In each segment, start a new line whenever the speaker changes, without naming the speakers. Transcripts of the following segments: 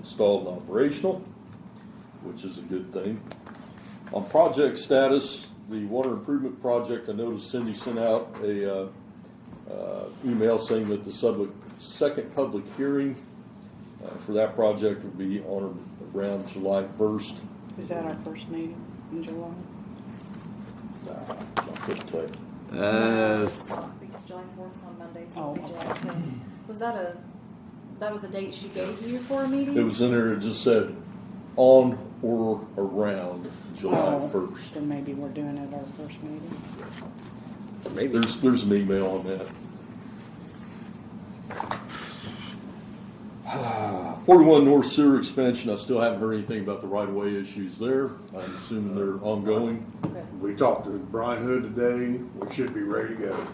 installed and operational, which is a good thing. On project status, the water improvement project, I noticed Cindy sent out a, uh, uh, email saying that the sub, second public hearing uh, for that project would be on or around July first.
Is that our first meeting in July?
I couldn't tell you.
Uh,
Because July fourth is on Monday,
Oh,
so it'll be
okay.
July fifth. Was that a, that was a date she gave you for a meeting?
It was in there, it just said on or around July first.
Then maybe we're doing it our first meeting.
maybe.
There's, there's an email on that. Forty-one North Sewer expansion, I still haven't heard anything about the right-of-way issues there. I'm assuming they're ongoing.
Okay.
We talked to Brian Hood today, we should be ready to go.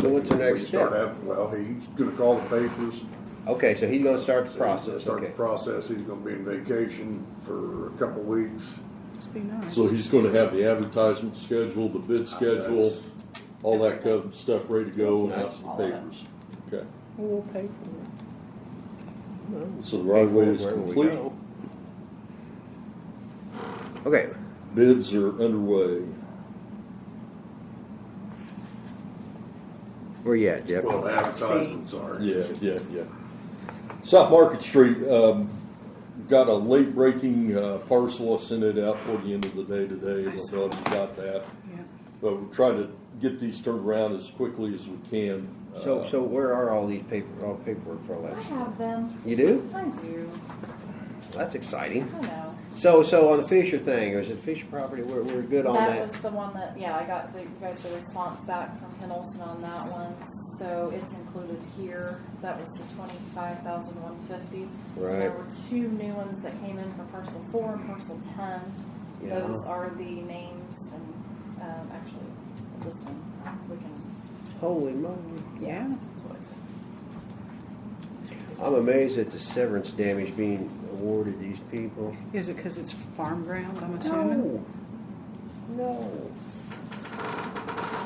So what's the next
We start
step?
out- Well, he's gonna call the papers.
Okay, so he's gonna start the process,
Start the
okay.
process, he's gonna be in vacation for a couple weeks.
Must be nice.
So he's gonna have the advertisement schedule, the bid schedule, all that kind of stuff ready to go and out to the papers. Okay,
We'll pay for
so the right of way is
Where we
complete,
go. Okay,
bids are underway.
where you at, Jeff?
Well, the advertisements are.
Yeah, yeah, yeah. South Market Street, um, got a late breaking, uh, parcel, I sent it out toward the end of the day today, I don't know if you got that.
it. Yeah.
But we're trying to get these turned around as quickly as we can.
So,
Uh,
so where are all these paper, all the paperwork for all
I
that?
have them.
You do?
I do.
That's exciting.
I know.
So, so on the Fisher thing, or is it Fisher property, we're, we're good on
That
that?
was the one that, yeah, I got, the- you guys the response back from Ken Olson on that one, so it's included here. That was the twenty-five thousand one fifty. There
Right.
were two new ones that came in for parcel four and parcel ten.
Yeah.
Those are the names and, um, actually, this one, we can,
Holy moly.
Yeah.
that's what I said.
I'm amazed at the severance damage being awarded these people.
Is it because it's farm ground, I'm assuming?
No.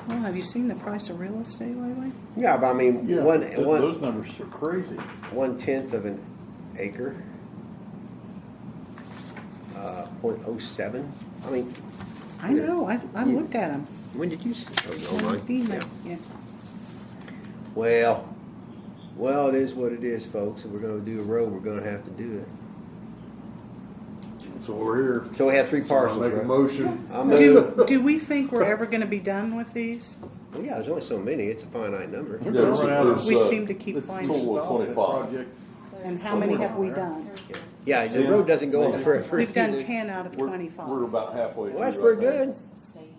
Well, have you seen the price of real estate lately?
Yeah, but I mean,
Yeah,
one,
th-
one,
those numbers are crazy.
one tenth of an acre. Uh, point oh seven, I mean,
I know, I, I looked at them.
when did you? s- oh, no, right.
Yeah.
Yeah. Well, well, it is what it is, folks, if we're gonna do a road, we're gonna have to do it.
So we're here.
So we have three
So I'll
parcels,
make a
right?
motion.
I move,
Do, do we think we're ever gonna be done with these?
well, yeah, there's only so many, it's a finite number.
We're
Yeah,
gonna
it's-
run out of-
it's,
We
uh,
seem to keep
Let's
finding,
total of
stop that
25.
project.
and how many have we done?
Here's the-
Yeah, the road doesn't go on forever.
We've done ten out of
We're, we're
twenty-five.
about halfway.
Well, that's
through
pretty
right now.
good.
It's the state,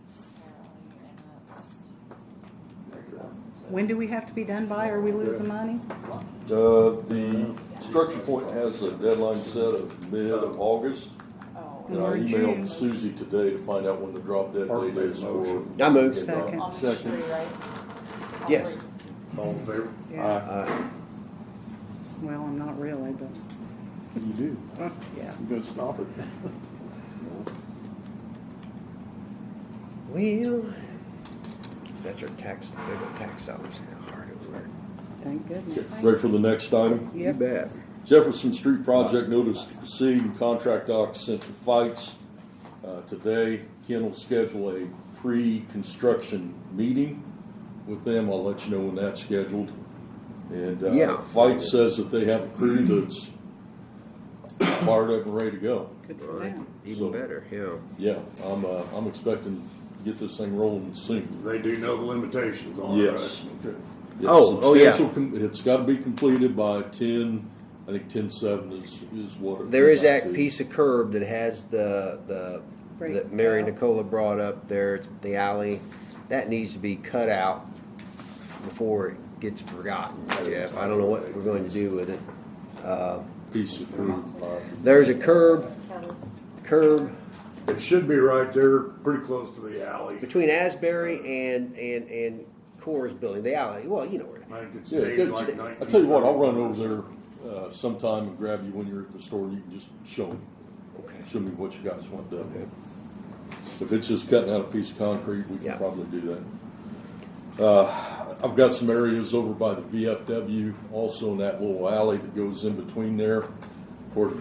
apparently, and that's-
When do we have to be done by or we lose the money?
Uh, the structure point has a deadline set of mid of August.
Oh,
And I
We're in June.
emailed Susie today to find out when the drop dead
Mark
date
made
is
a
for.
motion.
I move.
Second.
On these
Second.
three, right? All
Yes.
three.
All in favor?
Yeah.
Uh,
Well, I'm not really, but, uh,
You do.
yeah.
You're gonna stop it.
Well, that's our tax, they go tax dollars, how hard it works.
Thank goodness.
Ready for the next item?
You
Yep.
bet.
Jefferson Street Project Notice to Proceed and Contract Docs sent to Fights uh, today. Ken will schedule a pre-construction meeting with them. I'll let you know when that's scheduled. And uh,
Yeah.
Fights says that they have a crew that's fired up and ready to go.
Good for
Right.
them.
So-
Even better, yeah.
Yeah, I'm, uh, I'm expecting to get this thing rolling soon.
They do know the limitations on it, right?
Yes.
Okay.
It's
Oh, oh, yeah.
substantial com- It's gotta be completed by ten, I think ten seven is, is what. it
There is
came out
that
to.
piece of curb that has the, the,
Right.
that Mary Nicola brought up there, it's the alley. That needs to be cut out before it gets forgotten, Jeff. I don't know what we're going to do with it. Uh,
Piece of fruit, uh,
There's a curb,
Kelly.
curb
It should be right there, pretty close to the alley.
between Asbury and, and, and Coors Building, the alley, well, you know where. it is.
I think it's
Yeah,
dated
go
like
to-
nineteen.
I'll tell you what, I'll run over there uh, sometime and grab you when you're at the store, and you can just show me,
Okay.
show me what you guys want done. If it's just cutting out a piece of concrete, we
Yeah.
can probably do that. Uh, I've got some areas over by the VFW, also in that little alley that goes in between there, toward